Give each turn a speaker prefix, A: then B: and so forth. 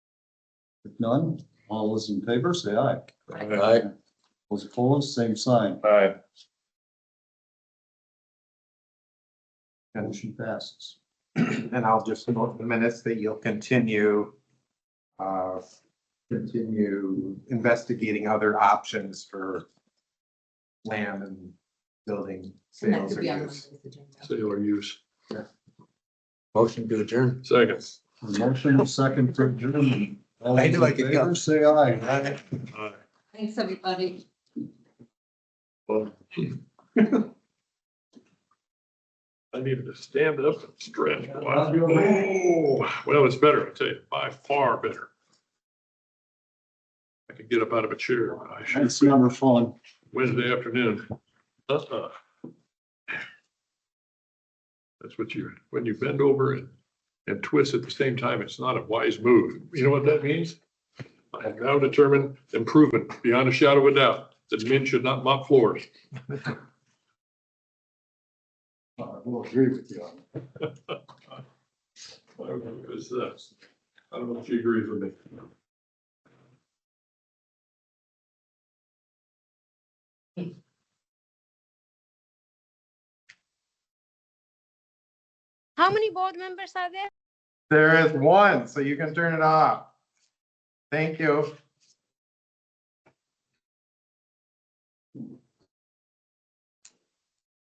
A: None? All those in favor, say aye.
B: Aye.
A: Those opposed, same sign.
C: Aye.
A: Motion passes.
D: And I'll just note the minutes that you'll continue, uh, continue investigating other options for land and building
E: And that
D: sales
E: could be
D: or
E: on
D: use.
E: Monday's agenda.
B: Sale or use. Motion to adjourn.
C: Second.
A: Motion second for adjournment. All
D: I
A: those
D: knew I
A: in
D: could
A: favor,
D: go.
A: Say aye.
C: Aye.
E: Thanks, everybody.
C: Well, I needed to stand up and stretch. Wow. Oh, Well, it's better, I tell you, by far better. I could get up out of a chair. but I should.
A: That's number fun.
C: Wednesday afternoon. Uh-uh. That's what you, when you bend over and, and twist at the same time, it's not a wise move. You know what that means? I have now determined and proven beyond a shadow of a doubt that men should not mop floors.
A: I will agree with you on that.
C: I don't know, it was, uh, I don't know if you agree with me.
F: How many board members are there?
D: There is one, so you can turn it off. Thank you.